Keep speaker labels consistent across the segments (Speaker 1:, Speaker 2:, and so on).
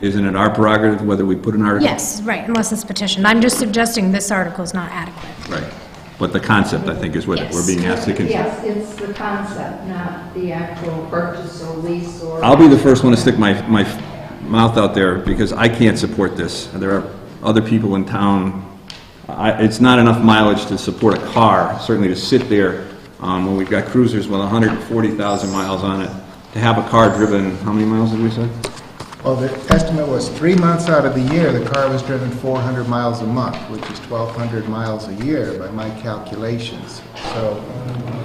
Speaker 1: Isn't it our prerogative whether we put an article?
Speaker 2: Yes, right, unless it's petitioned. I'm just suggesting this article is not adequate.
Speaker 1: Right. But the concept, I think, is what
Speaker 2: Yes.
Speaker 1: we're being asked to consider.
Speaker 3: Yes, it's the concept, not the actual purchase or lease or.
Speaker 1: I'll be the first one to stick my, my mouth out there because I can't support this. And There are other people in town, I, it's not enough mileage to support a car, certainly to sit there, um, when we've got cruisers with hundred and forty thousand miles on it, to have a car driven, how many miles did we say?
Speaker 4: Well, the estimate was three months out of the year, the car was driven 400 miles a month, which is 1,200 miles a year by my calculations. So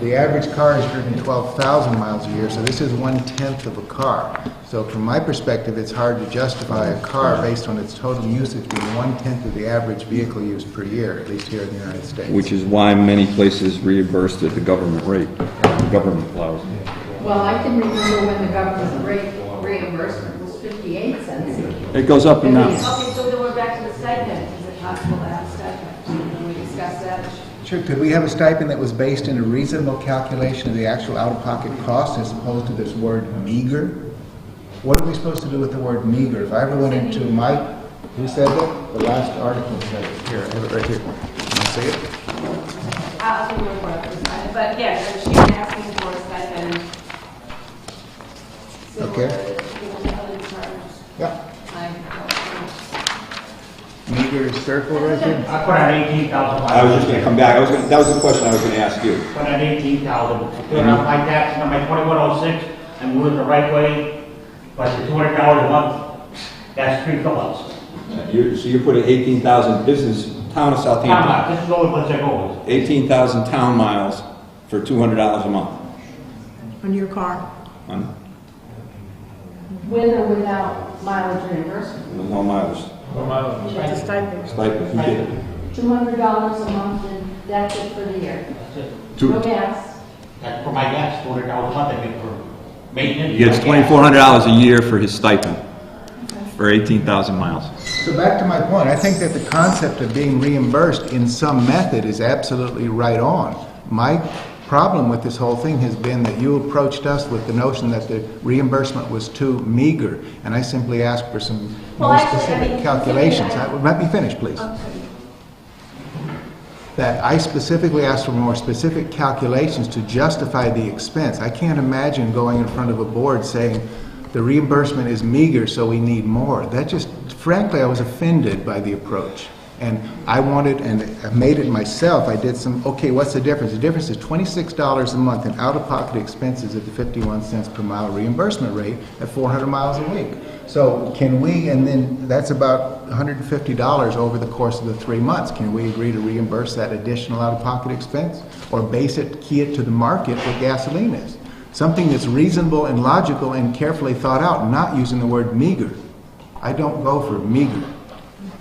Speaker 4: the average car is driven 12,000 miles a year, so this is one-tenth of a car. So from my perspective, it's hard to justify a car based on its total usage being one-tenth of the average vehicle use per year, at least here in the United States.
Speaker 1: Which is why many places reimbursed at the government rate, the government allows.
Speaker 3: Well, I can remember when the government rate reimbursement was 58 cents.
Speaker 1: It goes up and down.
Speaker 3: Okay, so then we're back to the stipend. Is it possible to have stipend? Can we discuss that?
Speaker 4: Sure, could we have a stipend that was based in a reasonable calculation of the actual out-of-pocket cost as opposed to this word meager? What are we supposed to do with the word meager? If I ever went into my, who said that? The last article said it, here, I have it right here. Can I see it?
Speaker 5: I'll do one more, but yeah, she's asking for a stipend. uh,
Speaker 4: Okay.
Speaker 5: Similar to other departments.
Speaker 4: Yeah,
Speaker 5: Like,
Speaker 4: meager circle right there.
Speaker 6: I put on Uh, eighteen thousand.
Speaker 7: I was just gonna come back, I was gonna, that was the question I was gonna ask you.
Speaker 6: Put on eighteen thousand,
Speaker 7: Mm-hmm.
Speaker 6: doing up my tax, on my twenty-one oh six, I'm moving the right way, but the two hundred dollars a month, that's three fill-ups.
Speaker 7: You, so you're putting eighteen thousand business, town of
Speaker 6: Now,
Speaker 7: Southampton,
Speaker 6: this is only what's their goal.
Speaker 7: eighteen thousand town miles for two hundred dollars a month.
Speaker 8: on your car.
Speaker 7: on-
Speaker 3: With or without mileage reimbursement?
Speaker 7: No mileage,
Speaker 8: It's a stipend.
Speaker 7: stipend, you get-
Speaker 3: $200 a month and that's it for the year.
Speaker 6: That's it.
Speaker 3: No gas.
Speaker 6: That's for my gas, two hundred dollars a month I get for maintenance.
Speaker 1: He gets
Speaker 6: my gas.
Speaker 1: twenty-four hundred dollars a year for his stipend, for eighteen thousand miles.
Speaker 4: So back to my point, I think that the concept of being reimbursed in some method is absolutely right on. My problem with this whole thing has been that you approached us with the notion that the reimbursement was too meager, and I simply asked for some
Speaker 3: Well,
Speaker 4: more
Speaker 3: actually, I
Speaker 4: specific
Speaker 3: mean,
Speaker 4: calculations.
Speaker 3: considering
Speaker 4: I- Let me finish, please. That I specifically asked for more specific calculations to justify the expense. I can't imagine going in front of a board saying, the reimbursement is meager, so we need more. That just, frankly, I was offended by the approach. And I wanted, and I made it myself, I did some, okay, what's the difference? The difference is twenty-six dollars a month in out-of-pocket expenses at the fifty-one cents per mile reimbursement rate at four hundred miles a week. So can we, and then that's about $150 over the course of the three months. Can we agree to reimburse that additional out-of-pocket expense? Or base it, key it to the market what gasoline is? Something that's reasonable and logical and carefully thought out, not using the word meager. I don't go for meager.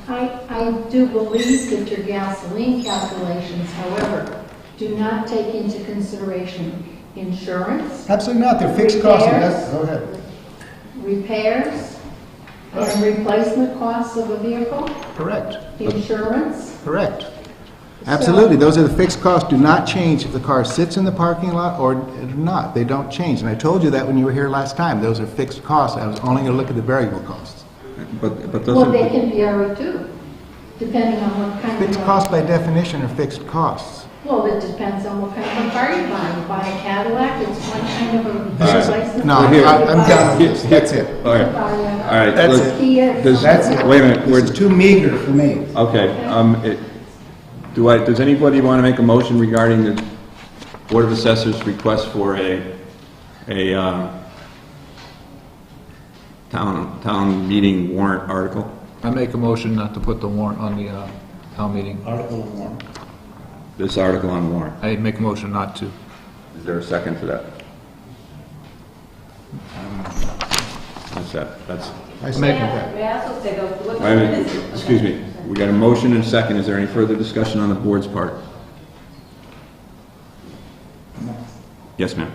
Speaker 3: I, I do believe that your gasoline calculations, however, do not take into consideration insurance,
Speaker 4: Absolutely not, they're
Speaker 3: fixed costs, and that's-
Speaker 4: go ahead.
Speaker 3: repairs, and replacement costs of a vehicle,
Speaker 4: Correct,
Speaker 3: insurance.
Speaker 4: correct. Absolutely, those are the fixed costs, do not change if the car sits in the parking lot or not, they don't change. And I told you that when you were here last time, those are fixed costs, I was only gonna look at the variable costs.
Speaker 1: But, but
Speaker 3: Well, they
Speaker 1: doesn't,
Speaker 3: can vary too, depending on what kind of.
Speaker 4: Fixed costs by definition are fixed costs.
Speaker 3: Well, it depends on what kind of car you buy. You buy a Cadillac, it's one kind of a
Speaker 1: right.
Speaker 3: replacement.
Speaker 4: No,
Speaker 1: Well, here-
Speaker 4: I- I'm done with this, that's it.
Speaker 1: all right, all right.
Speaker 4: That's
Speaker 1: let's-
Speaker 4: it.
Speaker 3: Kia.
Speaker 1: Does-
Speaker 4: That's it.
Speaker 1: Wait a minute, we're-
Speaker 4: This is too meager for me.
Speaker 1: Okay, um, it, do I, does anybody want to make a motion regarding the Board of Assessors' request for a, a, um, town, town meeting warrant article?
Speaker 9: I make a motion not to put the warrant on the uh, town meeting.
Speaker 1: This article on warrant.
Speaker 9: I make a motion not to.
Speaker 1: Is there a second for that? That's that, that's,
Speaker 4: I second that.
Speaker 5: May I also say though, what's
Speaker 1: wait a minute, excuse me. We got a motion and a second. Is there any further discussion on the board's part? Yes, ma'am.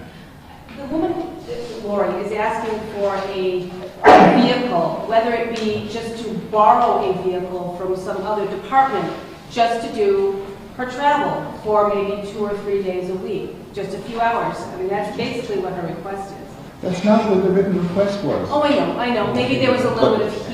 Speaker 5: The woman, uh, Lori, is asking for a vehicle, whether it be just to borrow a vehicle from some other department, just to do her travel for maybe two or three days a week, just a few hours. I mean, that's basically what her request is.
Speaker 4: That's not what the written request was.
Speaker 5: Oh, I know, I know, maybe there was a little bit of